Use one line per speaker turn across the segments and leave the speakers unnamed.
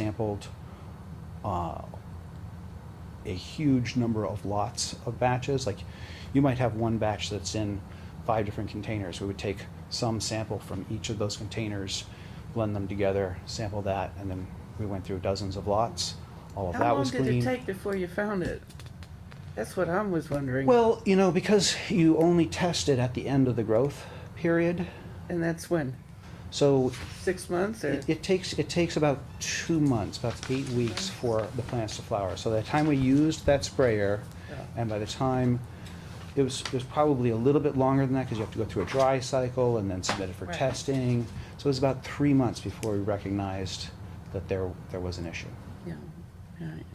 sampled uh, a huge number of lots of batches. Like, you might have one batch that's in five different containers. We would take some sample from each of those containers, blend them together, sample that, and then we went through dozens of lots. All of
How
that
long
was
did
cleaned.
it take before you found it? That's what I was wondering.
Well, you know, because you only test it at the end of the growth period,
And that's when?
so
Six months or?
it, it takes, it takes about two months, about eight weeks for the plants to flower. So by the time we used that sprayer,
Yeah.
and by the time, it was, it was probably a little bit longer than that, because you have to go through a dry cycle and then submit it for
Right.
testing. So it was about three months before we recognized that there, there was an issue.
Yeah, right.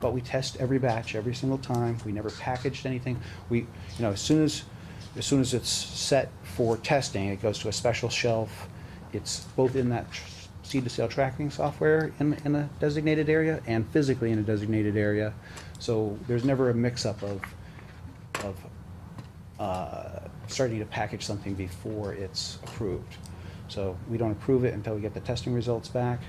But we test every batch, every single time. We never packaged anything. We, you know, as soon as, as soon as it's set for testing, it goes to a special shelf. It's both in that tr- seed to sale tracking software in, in a designated area and physically in a designated area. So there's never a mix-up of, of, uh, starting to package something before it's approved. So we don't approve it until we get the testing results back.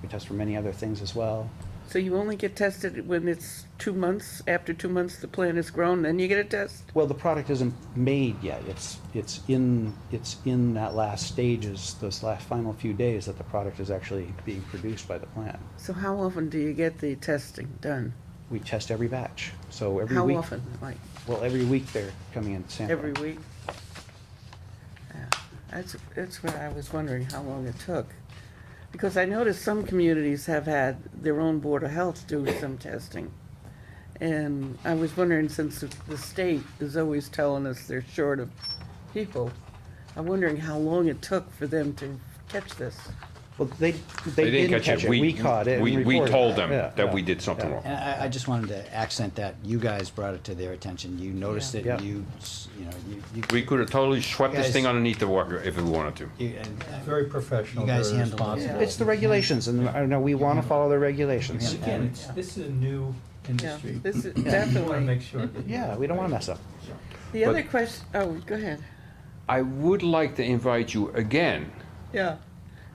We test for many other things as well.
So you only get tested when it's two months, after two months the plant is grown, then you get a test?
Well, the product isn't made yet. It's, it's in, it's in that last stages, those last final few days that the product is actually being produced by the plant.
So how often do you get the testing done?
We test every batch, so every
How
week.
often, like,
Well, every week they're coming in sampling.
every week? Yeah, That's, that's where I was wondering how long it took. Because I noticed some communities have had their own Board of Health do some testing. And I was wondering, since the- the state is always telling us they're short of people, I'm wondering how long it took for them to catch this.
Well, they, they didn't catch it. We caught it and
We, we
reported
told
it.
them
Yeah,
that we
yeah.
did something
yeah.
wrong.
And I, I just wanted to accent that you guys brought it to their attention. You noticed it,
Yeah.
you, s- you know, you, you.
We could have totally swept this
Guys-
thing underneath the water if we wanted to.
you- and- and-
Very professional,
You guys
very
handled it.
responsible.
It's the regulations, and I know we want to follow the
Yeah.
regulations.
Again, it's, this is a new
Yeah,
industry.
this is
We want to
definitely.
make sure. that-
Yeah, we don't want to mess up.
The
But-
other question, oh, go ahead.
I would like to invite you again
Yeah.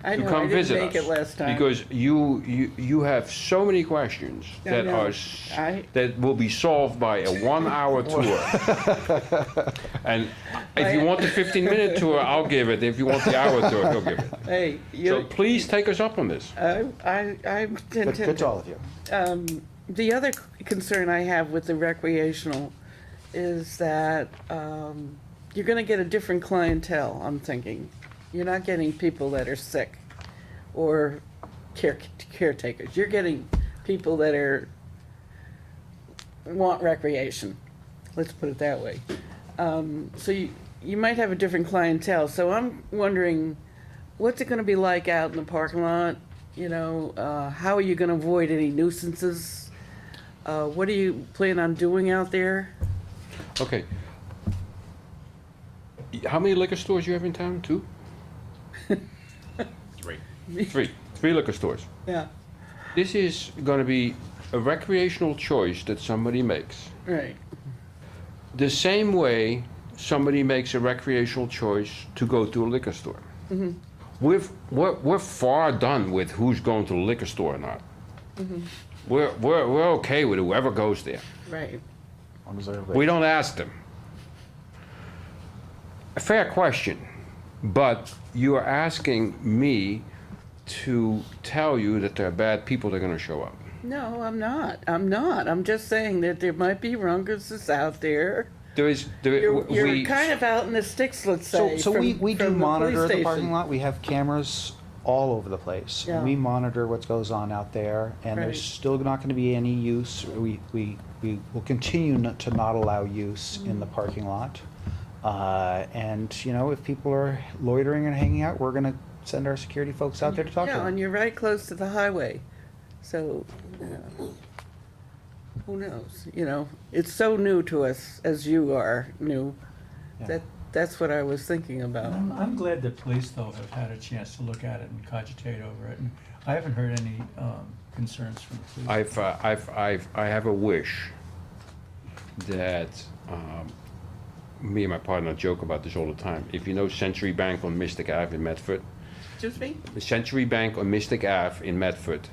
I
to
know, I
come
didn't
visit us.
make it last time.
Because you, you, you have so many questions
I
that
know.
are, s-
I-
that will be solved by a one-hour tour. And if you
I-
want the fifteen-minute tour, I'll give it. If you want the hour tour, he'll give it.
Hey,
So
you,
please take us up on this.
I, I, I'm
Good good to all of you.
um, the other c- concern I have with the recreational is that, um, you're gonna get a different clientele, I'm thinking. You're not getting people that are sick or care, caretakers. You're getting people that are, want recreation, let's put it that way. Um, so you, you might have a different clientele, so I'm wondering, what's it gonna be like out in the parking lot? You know, uh, how are you gonna avoid any nuisances? Uh, what do you plan on doing out there?
Okay. How many liquor stores you have in town? Two? Three. Three. Three liquor stores.
Yeah.
This is gonna be a recreational choice that somebody makes.
Right,
The same way somebody makes a recreational choice to go to a liquor store. We've, we're, we're far done with who's going to the liquor store or not. We're, we're, we're okay with whoever goes there.
right.
We don't ask them. A fair question, but you are asking me to tell you that there are bad people that are gonna show up.
No, I'm not. I'm not. I'm just saying that there might be runguses out there.
There is, there,
You're, you're
we,
kind of out in the sticks, let's
So,
say.
so we,
from-
we do
from police
monitor the
station.
parking lot, we have cameras all over the place.
Yeah.
We monitor what goes on out there, and
Right.
there's still not gonna be any use, we, we, we will continue not to not allow use in
Mm.
the parking lot. Uh, and, you know, if people are loitering and hanging out, we're gonna send our security folks out there to talk to
Yeah, and
them.
you're right close to the highway, so, you know, who knows, you know? It's so new to us, as you are new,
Yeah.
that, that's what I was thinking about.
I'm, I'm glad the police though have had a chance to look at it and cogitate over it, and I haven't heard any, um, concerns from the police.
I've, uh, I've, I've, I have a wish that, um, me and my partner joke about this all the time. If you know Century Bank on Mystic Ave in Medford,
Excuse me?
Century Bank on Mystic Ave in Medford